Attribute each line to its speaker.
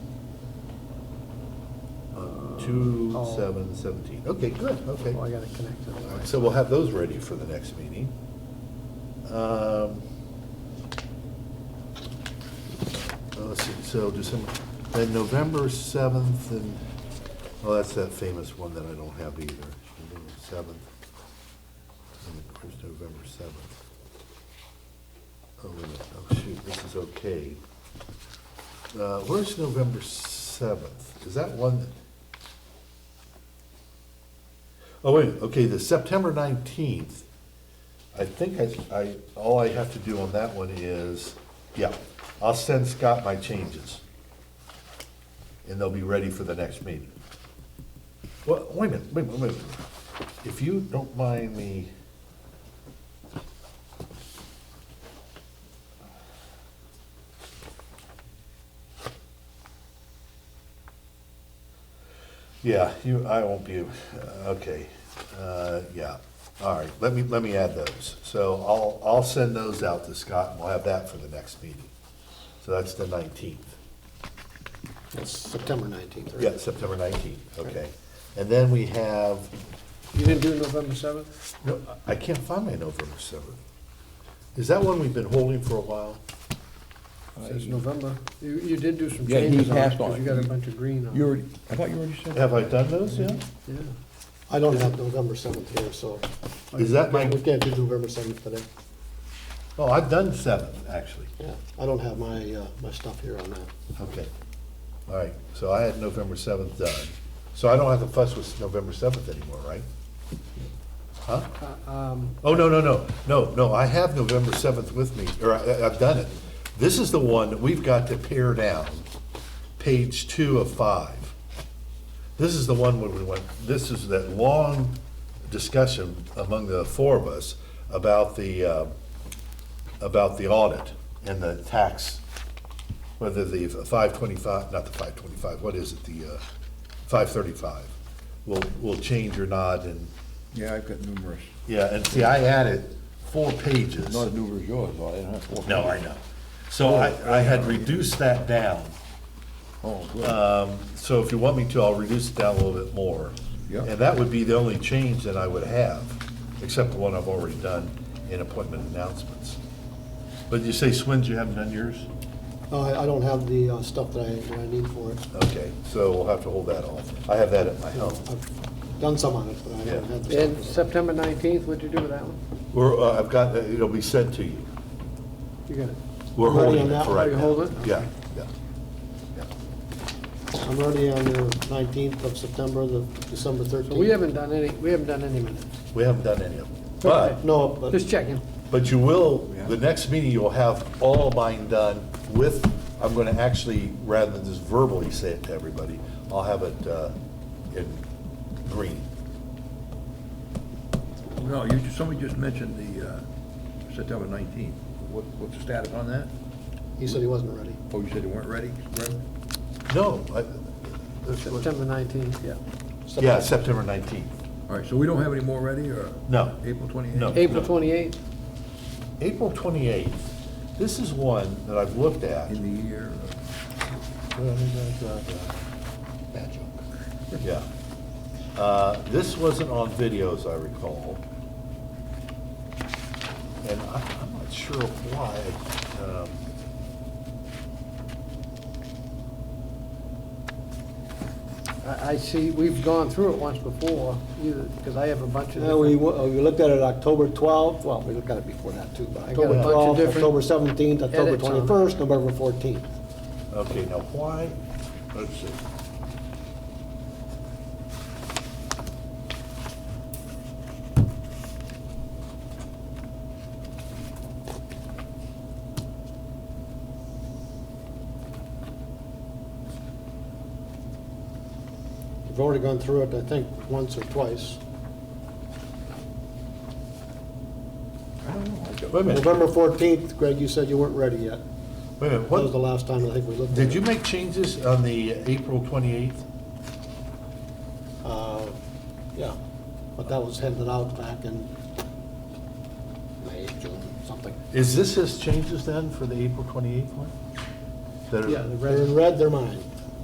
Speaker 1: Two,
Speaker 2: Oh.
Speaker 1: seven, seventeen. Okay, good, okay.
Speaker 2: Oh, I gotta connect to
Speaker 1: All
Speaker 2: the
Speaker 1: right, So we'll have those ready for the next meeting. Um, uh, Let's see, so December, then November seventh and, oh, that's that famous one that I don't have either. November seventh. Where's November seventh? Oh, wait a minute. Oh, shoot, this is okay. Uh, Where's November seventh? Is that one that? Oh, wait, okay, the September nineteenth, I think I, I, all I have to do on that one is, yeah, I'll send Scott my changes. And they'll be ready for the next meeting. Well, wait a minute, wait a minute, wait a minute. If you don't mind me. Yeah, you, I won't be, okay, uh, yeah, all right, let me, let me add those. So I'll, I'll send those out to Scott, and we'll have that for the next meeting. So that's the nineteenth.
Speaker 2: That's September nineteenth, right?
Speaker 1: Yeah, September nineteenth, okay. And then we have,
Speaker 2: You didn't do November seventh?
Speaker 1: no, I can't find my November seventh. Is that one we've been holding for a while?
Speaker 2: Says November. You, you did do some
Speaker 3: Yeah, he
Speaker 2: changes on it,
Speaker 3: passed on
Speaker 2: because
Speaker 3: it.
Speaker 2: you got a bunch of green on
Speaker 3: You
Speaker 2: it.
Speaker 3: already, I thought you already said that.
Speaker 1: Have I done those yet?
Speaker 2: Yeah. I don't have November seventh here, so.
Speaker 1: Is that my,
Speaker 2: We can't do November seventh today.
Speaker 1: oh, I've done seven, actually.
Speaker 2: Yeah, I don't have my, uh, my stuff here on that.
Speaker 1: Okay. All right, so I had November seventh done. So I don't have to fuss with November seventh anymore, right? Huh? Oh, no, no, no, no, no, I have November seventh with me, or I, I've done it. This is the one that we've got to pare down, page two of five. This is the one where we went, this is that long discussion among the four of us about the, uh, about the audit and the tax, whether the five twenty-five, not the five twenty-five, what is it, the, uh, five thirty-five? Will, will change or not and
Speaker 3: Yeah, I've got numerous,
Speaker 1: yeah, and see, I added four pages.
Speaker 3: not as numerous as yours, but I didn't have four.
Speaker 1: No, I know. So I, I had reduced that down.
Speaker 3: Oh,
Speaker 1: Uh,
Speaker 3: good.
Speaker 1: So if you want me to, I'll reduce it down a little bit more.
Speaker 3: Yeah.
Speaker 1: And that would be the only change that I would have, except the one I've already done in appointment announcements. But you say, Swins, you haven't done yours?
Speaker 2: Uh, I, I don't have the, uh, stuff that I, that I need for it.
Speaker 1: Okay, so we'll have to hold that off. I have that at my
Speaker 3: Oh.
Speaker 1: home.
Speaker 2: I've done some on it, but I don't
Speaker 1: Yeah.
Speaker 2: have the
Speaker 4: And
Speaker 2: stuff.
Speaker 4: September 19th, what'd you do with that one?
Speaker 1: We're, uh, I've got, it'll be sent to you.
Speaker 4: You got it.
Speaker 1: We're
Speaker 2: Ready
Speaker 1: holding
Speaker 2: on
Speaker 1: it
Speaker 2: that
Speaker 1: for
Speaker 2: one?
Speaker 1: right
Speaker 4: You
Speaker 1: now.
Speaker 4: hold it?
Speaker 1: Yeah, yeah.
Speaker 2: I'm already on the nineteenth of September, the December thirteenth.
Speaker 4: So we haven't done any, we haven't done any minutes.
Speaker 1: We haven't done any of them. But
Speaker 2: No, but.
Speaker 4: Just checking.
Speaker 1: But you will,
Speaker 3: Yeah.
Speaker 1: the next meeting, you'll have all mine done with, I'm gonna actually, rather than just verbally say it to everybody, I'll have it uh, in green.
Speaker 3: No, you, somebody just mentioned the, uh, September nineteenth. What, what's the status on that?
Speaker 2: He said he wasn't ready.
Speaker 3: Oh, you said they weren't ready, Greg?
Speaker 1: No, I-
Speaker 4: September 19th, yeah.
Speaker 1: yeah, September 19th.
Speaker 3: All right, so we don't have any more ready, or?
Speaker 1: No.
Speaker 3: April twenty-eighth?
Speaker 1: No.
Speaker 4: April 28th,
Speaker 1: April 28th, this is one that I've looked at.
Speaker 3: In the year,
Speaker 1: Bad joke. Yeah. Uh, This wasn't on video, as I recall. And I- I'm not sure why. um,
Speaker 4: I, I see, we've gone through it once before, either, because I have a bunch of.
Speaker 2: Yeah, we,
Speaker 4: different-
Speaker 2: uh, we looked at it October 12th, well, we looked at it before that too, but
Speaker 4: I got a
Speaker 2: October
Speaker 4: bunch of
Speaker 2: 12th,
Speaker 4: different
Speaker 2: October 17th, October
Speaker 4: edits on it.
Speaker 2: 21st, November 14th.
Speaker 1: Okay, now why, let's see.
Speaker 2: We've already gone through it, I think, once or twice.
Speaker 3: I don't know. I don't-
Speaker 1: Wait a minute,
Speaker 2: November 14th, Greg, you said you weren't ready yet.
Speaker 1: wait a minute,
Speaker 2: That was the
Speaker 1: what,
Speaker 2: last time I think we looked at it.
Speaker 1: did you make changes on the April 28th?
Speaker 2: Uh, Yeah, but that was handed out back in May, June, something.
Speaker 1: Is this his changes then for the April 28th one? That are-
Speaker 2: They're in red, they're mine.